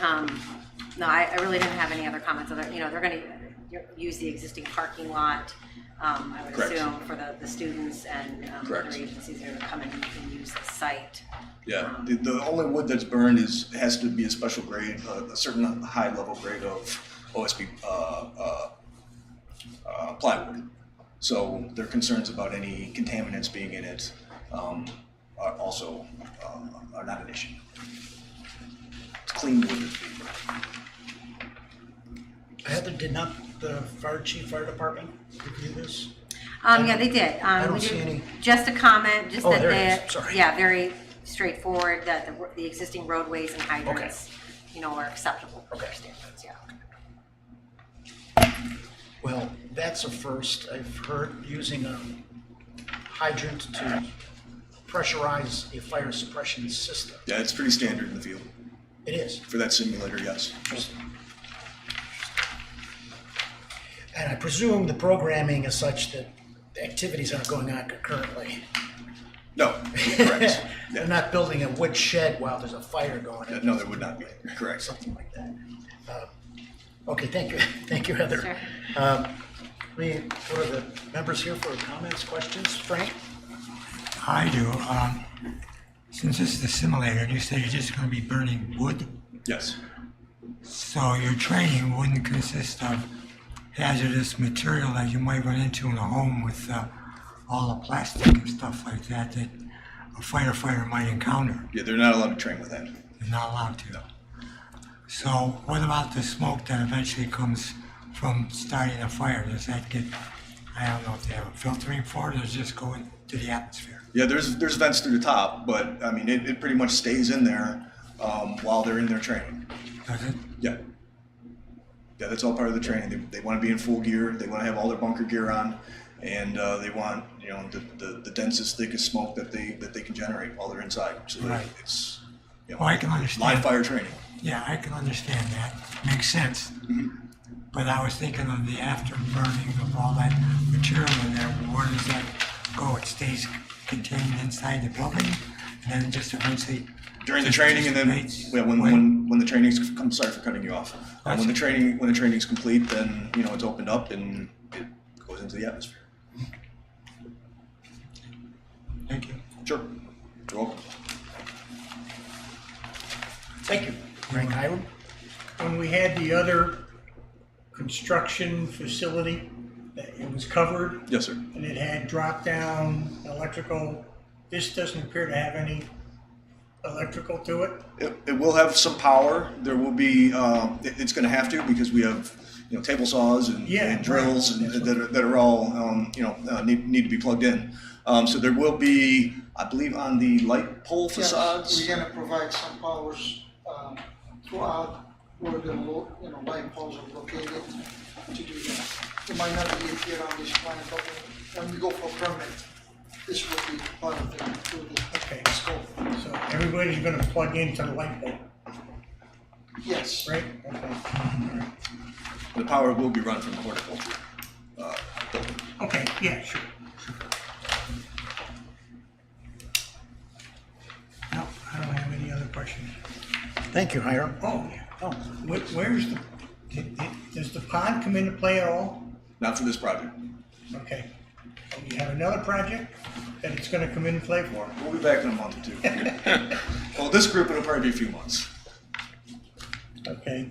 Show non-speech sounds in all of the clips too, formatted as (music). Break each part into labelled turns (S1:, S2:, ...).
S1: Um, no, I, I really didn't have any other comments other, you know, they're gonna use the existing parking lot, um, I would
S2: Correct.
S1: assume, for the, the students and, um, other
S2: Correct.
S1: agencies that are gonna come in and use the site.
S2: Yeah,
S1: Um,
S2: the, the only wood that's burned is, has to be a special grade, uh, a, a certain high level grade of OSB, uh, uh, uh, plywood. So their concerns about any contaminants being in it, um, are also, um, are not an issue. It's clean wood that's being burned.
S3: Heather, did not the fire chief, fire department review this?
S1: Um, yeah, they did. Um,
S3: don't
S1: we
S3: see
S1: did-
S3: any.
S1: Just a comment, just
S3: Oh,
S1: that
S3: there it
S1: they,
S3: is. Sorry.
S1: yeah, very straightforward, that the, the existing roadways and hydrants, you know, are acceptable for their
S3: Okay.
S1: standards, yeah.
S3: Well, that's a first. I've heard using a hydrant to pressurize a fire suppression system.
S2: Yeah, it's pretty standard in the field
S3: It is.
S2: for that simulator, yes.
S3: And I presume the programming is such that the activities aren't going on concurrently.
S2: No, correct.
S3: (laughs) They're not building a wood shed while there's a fire going on.
S2: No, there would not be, correct.
S3: something like that. Uh, Okay, thank you, (laughs) thank you, Heather.
S1: Sure.
S3: Um, We, what are the members here for comments, questions? Frank?
S4: I do. Um, since this is the simulator, and you said you're just going to be burning wood,
S2: Yes.
S4: so your training wouldn't consist of hazardous material that you might run into in a home with uh, all the plastic and stuff like that that a firefighter might encounter.
S2: Yeah, they're not allowed to train with that.
S4: You're not allowed to. So what about the smoke that eventually comes from starting a fire? Does that get, I don't know if they have a filtering for it, or does it just go into the atmosphere?
S2: Yeah, there's there's vents through the top, but I mean it, it pretty much stays in there um, while they're in their training.
S4: Does it?
S2: Yeah. Yeah, that's all part of the training. They, they want to be in full gear. They want to have all their bunker gear on, and uh, they want you know the, the, the densest, thickest smoke that they that they can generate while they're inside. So that
S4: Right.
S2: it's you know,
S4: Well, I can
S2: live
S4: understand.
S2: fire training.
S4: Yeah, I can understand that. Makes sense. But I was thinking of the afterburning of all that material in there. Where does that go? It stays contained inside the building and then just eventually.
S2: during the
S4: just
S2: training and then
S4: dissipates?
S2: yeah, when,
S4: Wait,
S2: when when the training's I'm sorry for cutting you off. Um,
S4: That's
S2: when the
S4: okay.
S2: training when the training's complete, then you know it's opened up and it goes into the atmosphere.
S4: Thank you.
S2: Sure. You're welcome.
S3: Thank you. Frank Hiram?
S5: when we had the other construction facility, that it was covered
S2: Yes, sir.
S5: and it had drop-down electrical. This doesn't appear to have any electrical to it.
S2: It, it will have some power. There will be. Um, it, it's going to have to because we have you know table saws and,
S5: Yeah,
S2: and drills
S5: right.
S2: and that, are, that are all um, you know uh, need, need to be plugged in. Um, so there will be, I believe, on the light pole
S6: Yes,
S2: facades.
S6: We're gonna provide some powers um, throughout where the, lo- you know, light poles are located to do that. It might not be here on this plan, but when we go for permit, this will be part of the included
S5: Okay.
S6: scope.
S5: So everybody's gonna plug into the light bulb,
S6: Yes,
S5: right? Okay.
S2: The power will be run from the horticulture uh, building.
S5: Okay, yeah, sure. No, I don't have any other questions.
S3: Thank you, Hiram.
S5: Oh, yeah, oh, wh- where's the, did- did- does the pod come into play at all?
S2: Not for this project.
S5: Okay. And you have another project that it's gonna come in and play for?
S2: We'll be back in a month or two. well, this group it'll probably be a few months.
S5: Okay.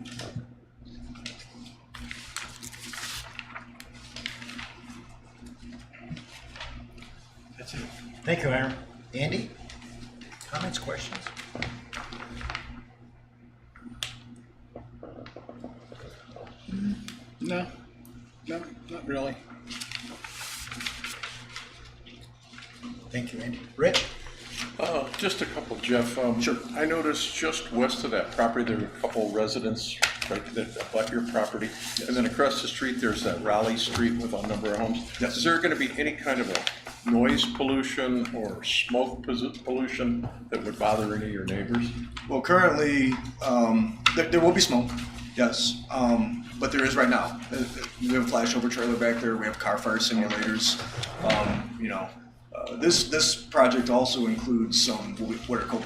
S5: That's it.
S3: Thank you, Hiram. Andy? Comments, questions?
S7: No, no, not really.
S3: Thank you, Andy. Rick?
S7: Uh, just a couple, Jeff. Um, sure. I noticed just west of that property, there were a couple residents right that abut your property. And then across the street, there's that Raleigh Street with a number of homes.
S2: Yes.
S7: Is there gonna be any kind of a noise pollution or smoke pos- pollution that would bother any of your neighbors?
S2: Well, currently, um, there, there will be smoke, yes, um, but there is right now. Uh, uh, We have a flashover trailer back there. We have car fire simulators. Um, you know, uh, this this project also includes some what we- what are called